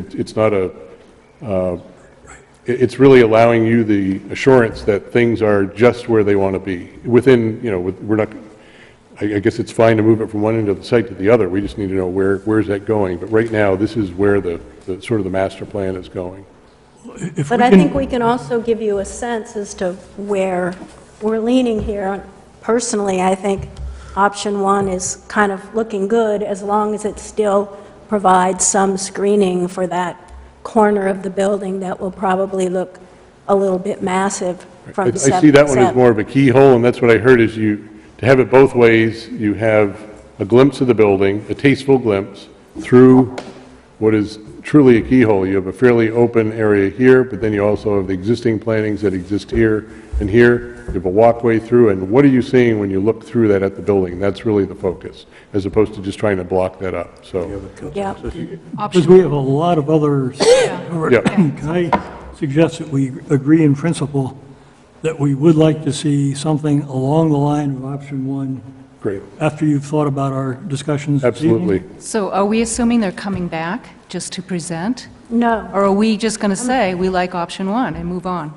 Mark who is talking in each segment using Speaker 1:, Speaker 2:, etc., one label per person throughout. Speaker 1: It- It's not a, uh, it- it's really allowing you the assurance that things are just where they want to be, within, you know, with- we're not, I I guess it's fine to move it from one end of the site to the other, we just need to know where, where's that going? But right now, this is where the, the- sort of the master plan is going.
Speaker 2: If
Speaker 3: But
Speaker 2: we
Speaker 3: I
Speaker 2: can-
Speaker 3: think we can also give you a sense as to where we're leaning here. Personally, I think option one is kind of looking good, as long as it still provides some screening for that corner of the building that will probably look a little bit massive
Speaker 1: I
Speaker 3: from
Speaker 1: I
Speaker 3: sep-
Speaker 1: see that one as
Speaker 3: sep-
Speaker 1: more of a keyhole, and that's what I heard, is you, to have it both ways, you have a glimpse of the building, a tasteful glimpse, through what is truly a keyhole. You have a fairly open area here, but then you also have the existing plantings that exist here and here. You have a walkway through, and what are you seeing when you look through that at the building? That's really the focus, as opposed to just trying to block that up, so.
Speaker 3: Yep.
Speaker 2: Because we have a lot of others.
Speaker 1: Yeah.
Speaker 2: Can I suggest that we agree in principle that we would like to see something along the line of option one
Speaker 1: Great.
Speaker 2: after you've thought about our discussions this evening?
Speaker 1: Absolutely.
Speaker 4: So are we assuming they're coming back just to present?
Speaker 3: No,
Speaker 4: Or are we just going to say, we like option one and move on?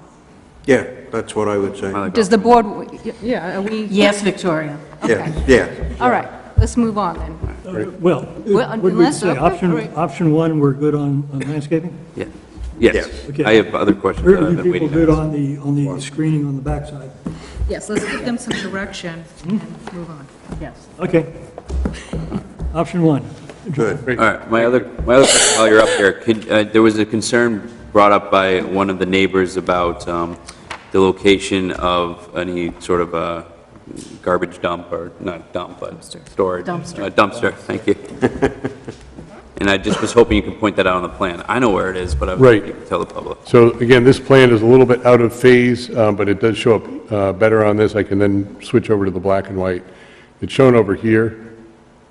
Speaker 5: Yeah, that's what I would say.
Speaker 4: Does the board, yeah, are we,
Speaker 6: Yes, Victoria.
Speaker 5: Yeah, yeah.
Speaker 4: all right, let's move on then.
Speaker 2: Uh, Well,
Speaker 4: Well,
Speaker 2: what would we
Speaker 4: unless-
Speaker 2: say,
Speaker 4: okay,
Speaker 2: option,
Speaker 4: great.
Speaker 2: option one, we're good on on landscaping?
Speaker 7: Yeah. Yes,
Speaker 2: Okay.
Speaker 7: I have other questions that
Speaker 2: Are
Speaker 7: I've
Speaker 2: you
Speaker 7: been
Speaker 2: people
Speaker 7: waiting
Speaker 2: good
Speaker 7: on.
Speaker 2: on the, on the screening on the backside?
Speaker 4: Yes, let's give them some direction and move on.
Speaker 6: Yes.
Speaker 2: Okay. Option one.
Speaker 5: Good.
Speaker 7: All right, my other, my other, question while you're up there, could, uh, there was a concern brought up by one of the neighbors about um, the location of any sort of a garbage dump, or not dump, but storage.
Speaker 6: Dumpster.
Speaker 7: Uh, Dumpster, thank you. And I just was hoping you could point that out on the plan. I know where it is, but I was
Speaker 1: Right.
Speaker 7: hoping you could tell the public.
Speaker 1: So again, this plan is a little bit out of phase, uh, but it does show up uh, better on this. I can then switch over to the black and white. It's shown over here,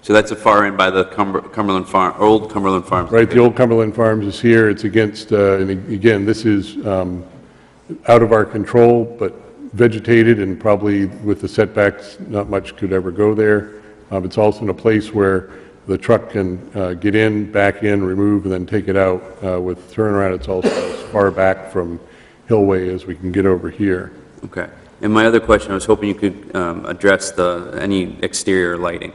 Speaker 7: So that's a far end by the Cumber- Cumberland Farm, old Cumberland Farms.
Speaker 1: right? The old Cumberland Farms is here, it's against, uh, and again, this is um, out of our control, but vegetated and probably with the setbacks, not much could ever go there. Um, It's also in a place where the truck can uh, get in, back in, remove, and then take it out uh, with turnaround. It's also as far back from Hillway as we can get over here.
Speaker 7: Okay. And my other question, I was hoping you could um, address the, any exterior lighting.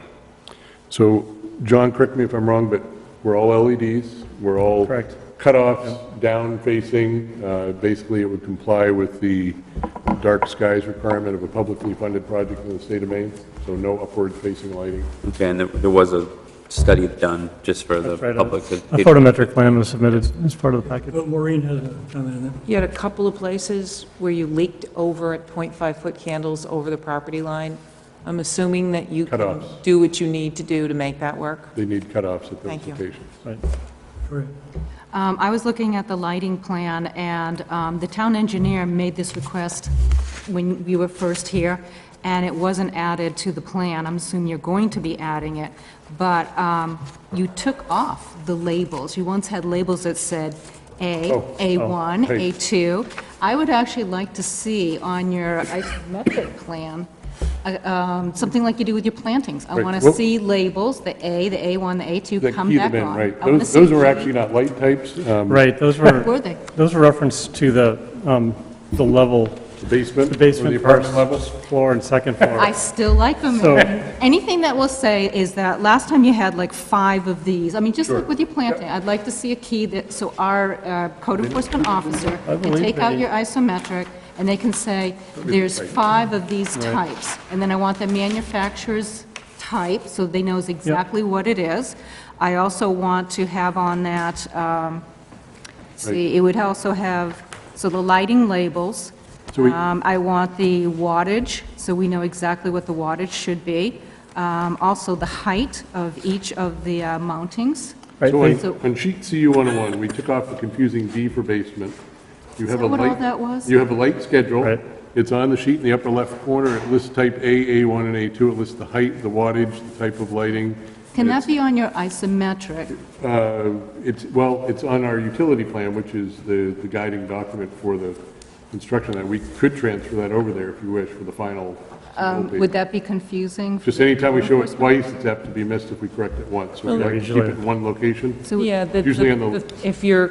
Speaker 1: So, John, correct me if I'm wrong, but we're all LEDs, we're all
Speaker 8: Correct.
Speaker 1: cutoffs, down facing, uh, basically it would comply with the dark skies requirement of a publicly funded project in the state of Maine, so no upward facing lighting.
Speaker 7: Okay, and there- there was a study done just for the
Speaker 8: Right, a-
Speaker 7: public.
Speaker 8: A photometric plan was submitted as part of the package.
Speaker 2: But Maureen has a comment on that.
Speaker 9: You had a couple of places where you leaked over at .5-foot candles over the property line. I'm assuming that you can
Speaker 1: Cutoffs.
Speaker 9: do what you need to do to make that work?
Speaker 1: They need cutoffs at those
Speaker 9: Thank you.
Speaker 1: locations.
Speaker 2: Correct.
Speaker 4: Um, I was looking at the lighting plan, and um, the town engineer made this request when we were first here, and it wasn't added to the plan. I'm assuming you're going to be adding it, but um, you took off the labels. You once had labels that said A,
Speaker 1: Oh,
Speaker 4: A1,
Speaker 1: hey.
Speaker 4: A2. I would actually like to see on your isometric plan, uh, um, something like you do with your plantings. I
Speaker 1: Right,
Speaker 4: want to
Speaker 1: well-
Speaker 4: see labels, the A, the A1, the
Speaker 1: That
Speaker 4: A2, come
Speaker 1: keyed them
Speaker 4: back
Speaker 1: in,
Speaker 4: on.
Speaker 1: right.
Speaker 4: I wanna
Speaker 1: Those
Speaker 4: see
Speaker 1: those are actually not light types, um,
Speaker 8: Right, those were,
Speaker 4: Were they?
Speaker 8: those were referenced to the, um, the level,
Speaker 1: the
Speaker 8: the
Speaker 1: basement, or
Speaker 8: basement.
Speaker 1: the apartment
Speaker 8: first
Speaker 1: level.
Speaker 8: Floor and second floor.
Speaker 4: I still like them.
Speaker 8: So-
Speaker 4: Anything that will say is that last time you had like five of these. I mean, just look with your planting. I'd like to see a key that, so our uh, code enforcement officer can
Speaker 8: believe
Speaker 4: take out
Speaker 8: they-
Speaker 4: your isometric and they can say, there's five of these types. And then I want the manufacturer's type, so they knows exactly what it is. I also want to have on that, um, see, it would also have, so the lighting labels.
Speaker 1: So we-
Speaker 4: Um, I want the wattage, so we know exactly what the wattage should be. Um, Also, the height of each of the uh, mountings.
Speaker 8: Right,
Speaker 1: So
Speaker 8: they-
Speaker 1: on-
Speaker 4: So-
Speaker 1: on sheet CU 101, we took off the confusing D for basement. You have
Speaker 4: that
Speaker 1: a
Speaker 4: what all
Speaker 1: light-
Speaker 4: that was?
Speaker 1: You have a light schedule.
Speaker 8: Right.
Speaker 1: It's on the sheet in the upper left corner. It lists type A, A1, and A2. It lists the height, the wattage, the type of lighting.
Speaker 4: Can that be on your isometric?
Speaker 1: Uh, It's, well, it's on our utility plan, which is the the guiding document for the construction, that we could transfer that over there if you wish for the final
Speaker 4: Um, Would that be confusing?
Speaker 1: Just anytime we show it twice, it's apt to be missed if we correct it once. So we
Speaker 8: Well-
Speaker 1: like to keep it in one location.
Speaker 4: So-
Speaker 9: Yeah, the-
Speaker 1: Usually on the-
Speaker 9: the- if you're